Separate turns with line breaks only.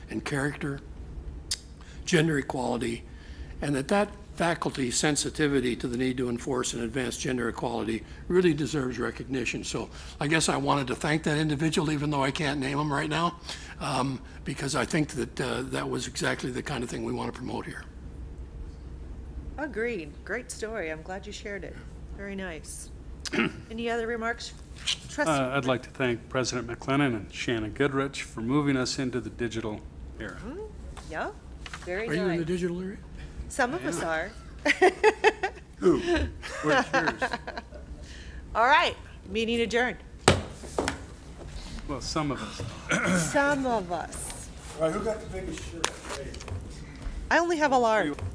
and character, gender equality, and that that faculty sensitivity to the need to enforce and advance gender equality really deserves recognition. So I guess I wanted to thank that individual, even though I can't name him right now, um, because I think that uh, that was exactly the kind of thing we want to promote here.
Agreed. Great story. I'm glad you shared it. Very nice. Any other remarks? Trustee,
Uh, I'd like to thank President McLennan and Shannon Goodrich for moving us into the digital era.
yeah, very
Are you in the
nice.
digital area?
Some of us are.
Where's yours?
All right, meeting adjourned.
Well, some of us.
Some of us.
All right, who got the biggest shirt?
I only have a large.